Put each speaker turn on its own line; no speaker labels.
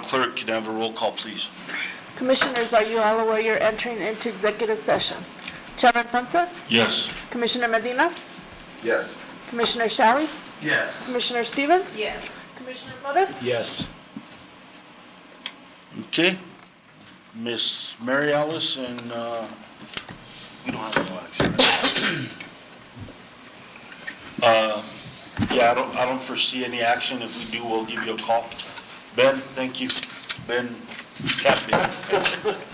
clerk, can I have a roll call, please?
Commissioners, are you all aware you're entering into executive session? Chairman Ponce,
Yes.
Commissioner Medina,
Yes.
Commissioner Shally,
Yes.
Commissioner Stevens?
Yes.
Commissioner Flores?
Yes.
Okay. Miss Mary Alice and, uh, we don't have no action. Uh, Yeah, I don't, I don't foresee any action. If we do, we'll give you a call. Ben, thank you. Ben, Captain.